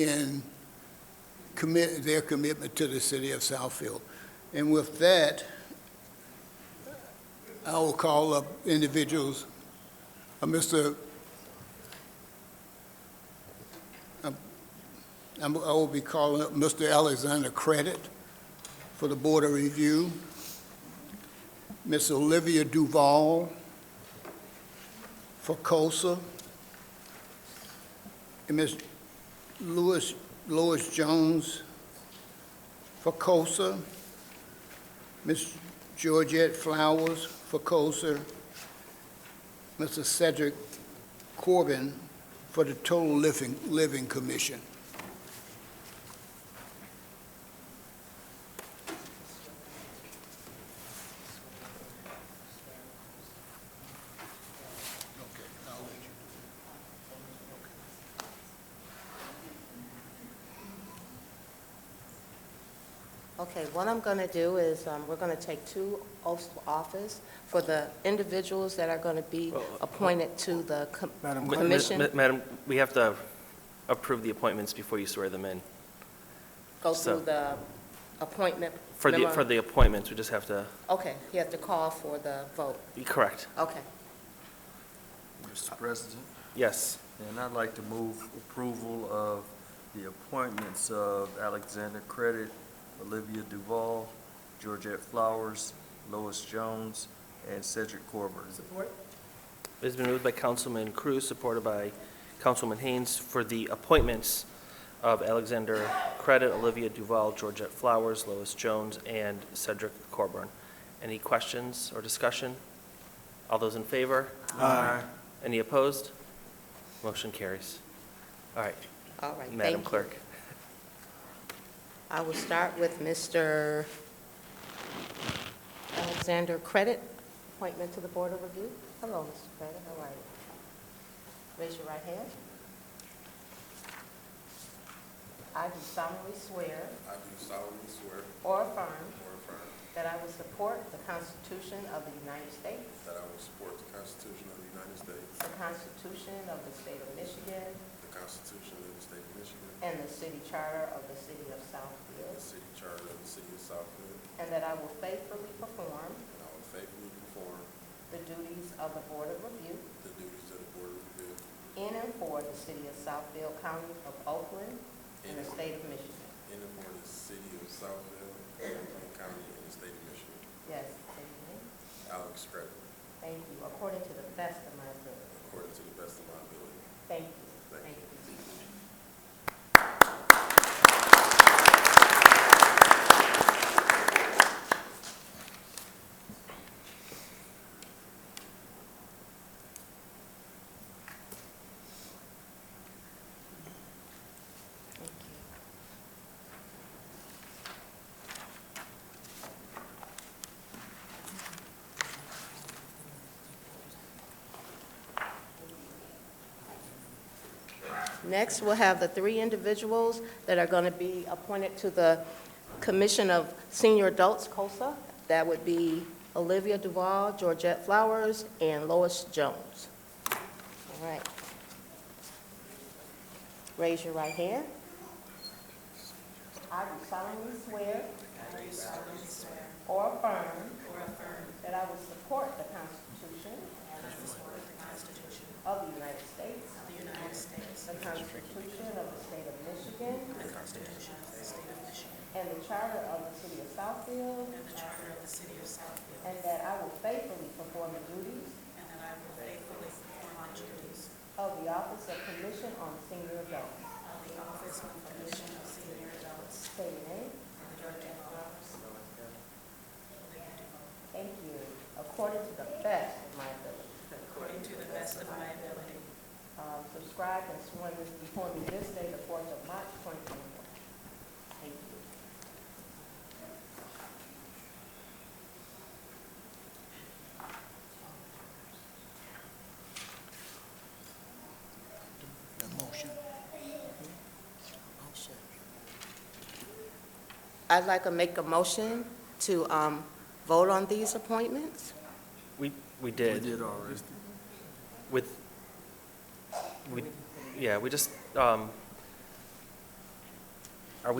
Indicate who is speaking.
Speaker 1: in commit, their commitment to the city of Southfield. And with that, I will call up individuals, uh, Mr., I'm- um, I'm- I will be calling up Mr. Alexander Credit for the Board of Review, Ms. Olivia Duval for COSA, and Ms. Louis, Louis Jones for COSA, Ms. Georgette Flowers for COSA, Mr. Cedric Corbin for the Total Living, Living Commission. Okay, I'll let you.
Speaker 2: Okay, what I'm going to do is, um, we're going to take two oaths of office for the individuals that are going to be appointed to the com-
Speaker 3: Madam
Speaker 2: Clerk. Commission.
Speaker 4: Ma- Madam, we have to approve the appointments before you swear them in.
Speaker 2: go
Speaker 4: So-
Speaker 2: through the appointment
Speaker 4: For the,
Speaker 2: memo.
Speaker 4: for the appointments, we just have to,
Speaker 2: Okay, you have to call for the vote.
Speaker 4: correct,
Speaker 2: Okay.
Speaker 3: Mr. President,
Speaker 4: yes.
Speaker 3: and I'd like to move approval of the appointments of Alexander Credit, Olivia Duval, Georgette Flowers, Lois Jones, and Cedric Corbin.
Speaker 4: It's been moved by Councilman Cruz, supported by Councilman Haynes, for the appointments of Alexander Credit, Olivia Duval, Georgette Flowers, Lois Jones, and Cedric Corburn. Any questions or discussion? All those in favor?
Speaker 3: Aye.
Speaker 4: Any opposed? Motion carries. All right,
Speaker 2: All right, thank
Speaker 4: Madam
Speaker 2: you.
Speaker 4: Clerk.
Speaker 2: I will start with Mr. Alexander Credit, appointment to the Board of Review. Hello, Mr. Credit, how are you? Raise your right hand. I do solemnly swear
Speaker 5: I do solemnly swear
Speaker 2: or affirm
Speaker 5: or affirm
Speaker 2: that I will support the Constitution of the United States,
Speaker 5: that I will support the Constitution of the United States,
Speaker 2: the Constitution of the State of Michigan,
Speaker 5: the Constitution of the State of Michigan,
Speaker 2: and the City Charter of the City of
Speaker 5: and the
Speaker 2: Southfield,
Speaker 5: City Charter of the City of Southfield,
Speaker 2: and that I will faithfully perform
Speaker 5: and I will faithfully perform
Speaker 2: the duties of the Board of Review
Speaker 5: the duties of the Board of Review
Speaker 2: In and for the city of Southfield, county of Oakland, and the state of Michigan.
Speaker 5: in and for the City of Southfield, Oakland County, and the State of Michigan.
Speaker 2: Yes, amen.
Speaker 5: Alex Credit,
Speaker 2: Thank you, according to the best of my ability.
Speaker 5: according to the best of my ability.
Speaker 2: Thank you. Thank you. Thank you. Next, we'll have the three individuals that are going to be appointed to the Commission of Senior Adults, COSA. That would be Olivia Duval, Georgette Flowers, and Lois Jones. All right. Raise your right hand. I do solemnly swear. Or affirm. That I will support the Constitution. Of the United States. The Constitution of the State of Michigan. The Constitution of the State of Michigan. And the Charter of the City of Southfield. And the Charter of the City of Southfield. And that I will faithfully perform the duties. And that I will faithfully perform the duties. Of the Office of Commission on Senior Adults. Of the Office of Commission on Senior Adults. Say your name. Thank you. According to the best of my ability. Um, subscribe and sworn this before me this day, the fourth of March, twenty twenty-four. Thank you.
Speaker 1: The motion.
Speaker 2: I'd like to make a motion to, um, vote on these appointments.
Speaker 4: We, we
Speaker 3: We
Speaker 4: did.
Speaker 3: did already.
Speaker 4: With, we, yeah, we just, um,